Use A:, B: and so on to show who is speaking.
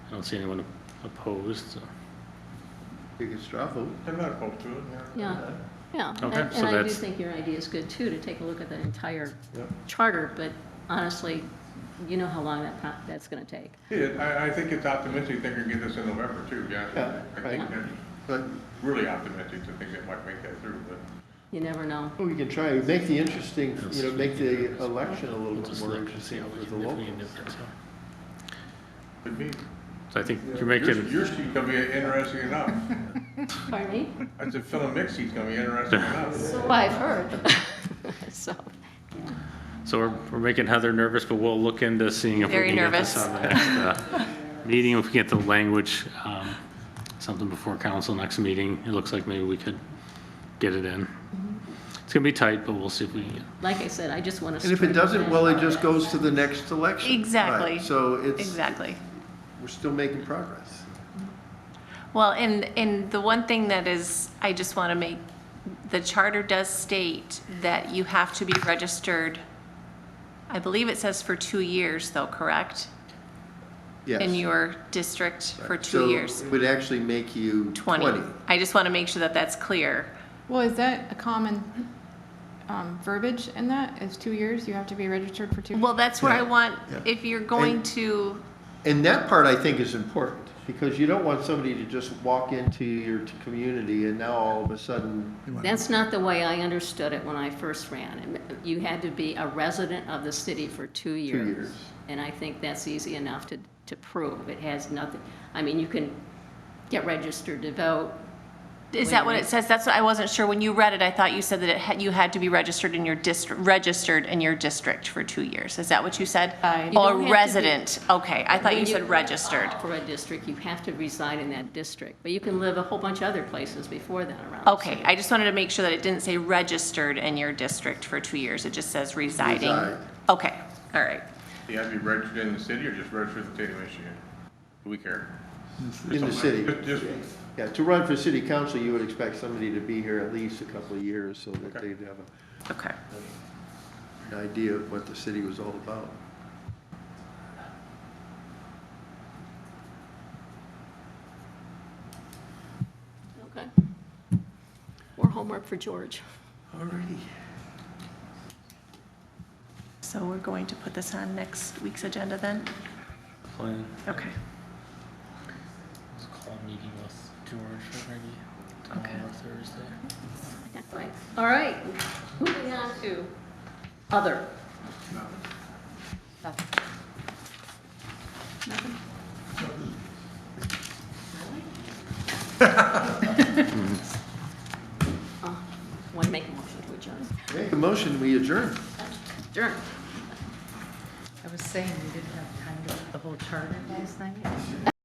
A: I don't see anyone opposed, so.
B: Take a straw vote.
C: I'm not opposed to it.
D: Yeah.
B: Uh,
D: Yeah, and-
A: Okay, so
D: and I do
A: that's-
D: think your idea is good too, to take a look at the entire
C: Yep.
D: charter, but honestly, you know how long that, pro- that's gonna take.
C: Yeah, I, I think it's optimistic they can get this in November too, yeah.
B: Yeah,
C: I think
B: right.
C: that's
B: But
C: really optimistic to think they might make that through, but.
D: You never know.
B: well, we oh, can try, make the interesting, you know, make the election a
A: we'll
B: little bit
A: just
B: more
A: look and see
B: interesting
A: how we
B: with the
A: can- if we can
B: locals.
A: do it, so.
C: Could be.
A: So I think you're
C: Your,
A: making,
C: your seat's gonna be interesting enough.
D: Pardon me?
C: I said, Phil and Mick's seat's gonna be interesting enough.
D: So I've heard. So,
A: so we're, we're making Heather nervous, but we'll look into seeing if we
E: Very
A: can get this
E: nervous.
A: on the next, uh, meeting, if we get the language, um, something before council next meeting. It looks like maybe we could get it in.
E: Mm-hmm.
A: It's gonna be tight, but we'll see if we,
D: like I said, I just wanna.
B: And if it
D: spread
B: doesn't,
D: that
B: well, it
D: out.
B: just goes to the next election.
E: Exactly.
B: Right, So it's,
E: Exactly.
B: we're still making progress.
E: Well, and, and the one thing that is, I just want to make, the charter does state that you have to be registered, I believe it says for two years though, correct?
B: Yes.
E: In your district for
B: Right.
E: two years.
B: So it would actually make you
E: 20. I just want to make sure that that's clear.
F: Well, is that a common um, verbiage in that? Is two years, you have to be registered for two?
E: Well, that's where I
B: Yeah,
E: want,
B: yeah.
E: if you're going
B: And-
E: to,
B: And that part I think is important because you don't want somebody to just walk into your t- community and now all of a sudden,
D: That's not the way I understood it when I first ran. It meant You had to be a resident of the city for two years.
B: years.
D: And I think that's easy enough to, to prove. It has nothing, I mean, you can get registered to vote,
E: is that what
D: Wait.
E: it says? That's what, I wasn't sure. When you read it, I thought you said that it had, you had to be registered in your district, registered in your district for two years. Is that what you said?
D: Uh, You don't
E: Or
D: have to be-
E: resident, okay. I thought
D: When
E: you said registered.
D: For a district, you have to reside in that district, but you can live a whole bunch of other places before that around. the
E: Okay,
D: city.
E: I just wanted to make sure that it didn't say registered in your district for two years, it just says residing.
B: Reside.
E: Okay, all right.
C: You have to be registered in the city or just registered in the state of Michigan? Do we care?
B: in the city.
C: Just- Just,
B: Yeah, to run for city council, you would expect somebody to be here at least a couple of years so that
C: Okay.
B: they'd have
E: Okay.
B: an idea of what the city was all about.
D: Okay. More homework for George.
B: Alrighty.
E: So we're going to put this on next week's agenda then?
A: plan,
E: Okay,
A: let's call a meeting with George already tomorrow or Thursday.
D: Right. All right, moving on to other. Nothing. Uh, Really? Uh, Want to make a motion to adjourn?
B: Make a motion, we adjourn.
D: Adjourn.
G: I was saying we didn't have time to put the whole charter last night.